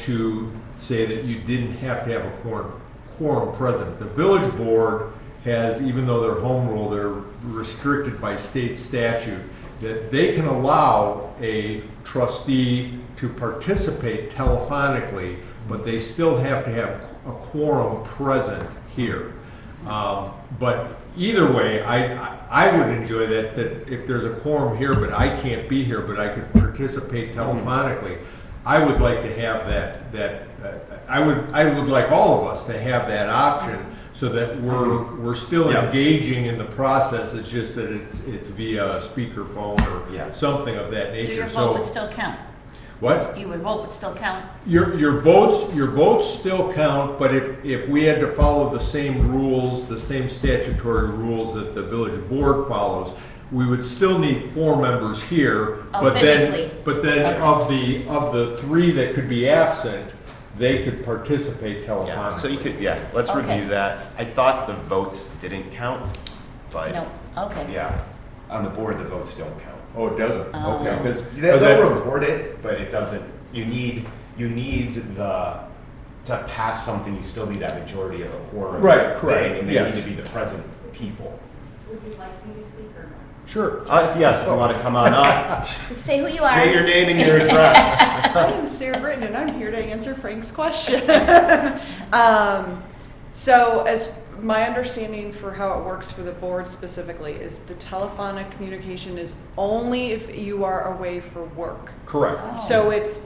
to say that you didn't have to have a quorum, quorum present. The village board has, even though they're home rule, they're restricted by state statute, that they can allow a trustee to participate telephonically, but they still have to have a quorum present here. Um, But either way, I, I- I would enjoy that, that if there's a quorum here, but I can't be here, but I could participate telephonically, I would like to have that, that, uh, I would, I would like all of us to have that option so that we're, we're still Yeah. engaging in the process, it's just that it's, it's via speakerphone Yeah. or something of that So your nature, vote would so. still count? What? You would vote would still count? Your, your votes, your votes still count, but if, if we had to follow the same rules, the same statutory rules that the village board follows, we would still need four members here, Oh, but then, physically. but then Okay. of the, of the three that could be absent, they could participate Yeah, Uh, so telephonically. you could, yeah, let's Okay. review that. I thought the votes didn't count, No, but, okay. yeah, on the board, the votes don't count. Oh, it doesn't, Oh. okay, because. They- They'll report it, but it doesn't, you need, you need the, to pass something, you still need that majority of a quorum. Right, correct, thing, And they yes. need to be the present people. Would you like me to speak or not? Sure. Uh, if yes, if you want to come on up, Say who you are. say your name and your address. I'm Sarah Britton, and I'm here to answer Frank's question. Um, So as, my understanding for how it works for the board specifically is the telephonic communication is only if you are away for work. Oh. Correct, So it's,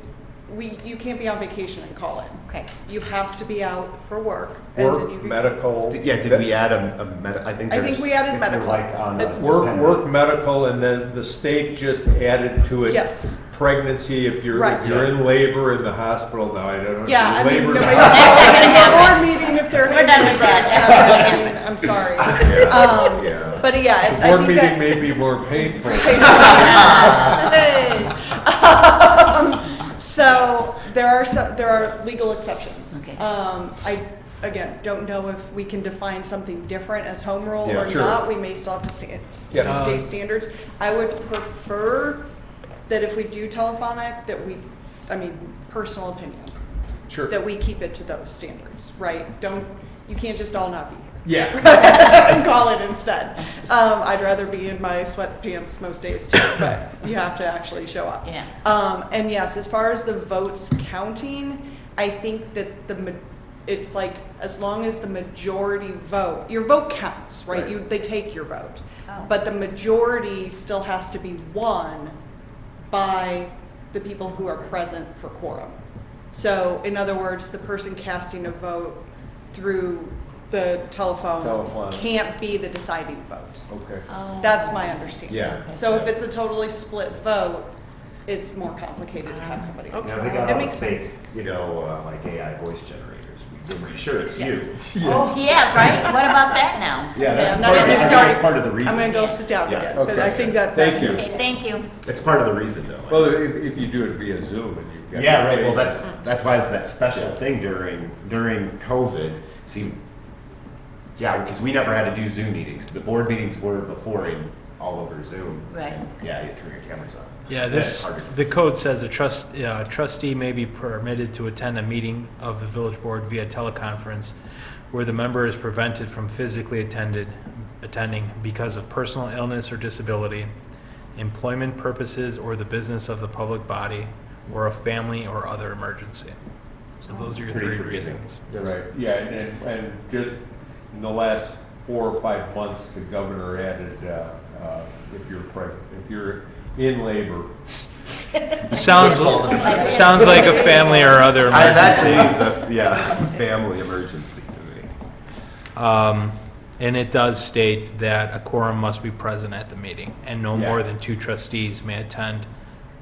we, you can't be on vacation and call in. Okay, You have to be out for work. and then you work, can- medical. Yeah, did we add a, a med, I think I there's. think we added if you're medical. Like on. a It's- Work, ten- work, medical, and then the state just added to it. Yes. Pregnancy, if you're, Right. if you're in labor in the hospital, now I don't know. Yeah, I mean, Labor's- nobody's happen. board meeting if they're. We're done with that. I'm sorry. Yeah. Um, Yeah. But yeah, I- I Board think meeting that. may be more painful. Hey. Um, So, there are some, there are legal exceptions. Okay. Um, I, again, don't know if we can define something different as home rule Yeah, or sure. not. We may still have to stand, Yeah. to state standards. I would prefer that if we do telephonic, that we, I mean, personal opinion, Sure. that we keep it to those standards, right? Don't, you can't just all not be here Yeah, and call it instead. Um, I'd rather be in my sweatpants most days too, but you have to actually show up. Yeah. Um, and yes, as far as the votes counting, I think that the, ma- it's like, as long as the majority vote, your vote counts, right? Right. You, they take your vote. Oh. But the majority still has to be won by the people who are present for quorum. So in other words, the person casting a vote through the telephone Telephone. can't be the deciding vote. okay. oh. That's my understanding. Yeah. So if it's a totally split vote, it's more complicated to have somebody. You know, they That got all the makes fake, you know, uh, like AI voice generators. We're pretty sure it's you. Oh, yeah, right? What about that now? Yeah, that's I'm part of, not the- I even think starting. that's part of the I'm gonna reason. go sit down Yes, again, but I okay. think that. Thank you. Okay, thank you. It's part of the reason though. Well, if, if you do it via Zoom and you've got. Yeah, right, well, the that's, face- that's why it's that special thing during, during COVID. See, yeah, because we never had to do Zoom meetings. The board meetings were before in, all over Zoom. Right. And, Yeah, you turn your cameras on. Yeah, That's this, hard to- the code says a trust, uh, trustee may be permitted to attend a meeting of the village board via teleconference where the member is prevented from physically attended, attending because of personal illness or disability, employment purposes, or the business of the public body, or a family or other emergency. So those are your Pretty three forgiving. reasons. You're Right, yeah, and, and- and just in the last four or five months, the governor added, uh, uh, if you're pregnant, if you're in labor. Sounds, sounds like a family or other I, emergency. that seems a, yeah, family emergency to me. Um, And it does state that a quorum must be present at the meeting, and no more Yeah. than two trustees may attend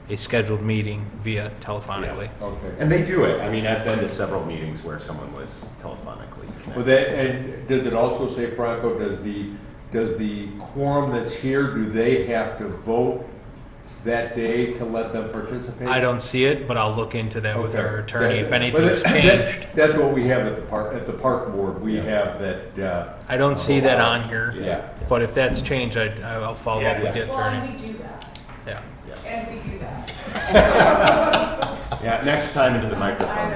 a scheduled meeting via telephonically. Okay. And they do it. I mean, I've been to several meetings where someone was telephonically Well, connected. that, and does it also say, Franco, does the, does the quorum that's here, do they have to vote that day to let them participate? I don't see it, but I'll look into that with Okay. our attorney if That- but anything's that- changed. That's what we have at the park, at the park board, we have that, uh, I don't see that on here, yeah. but if that's changed, I, I'll follow up with the Well, attorney. and we do that, Yeah. and we do that. Yeah, next time into the microphone.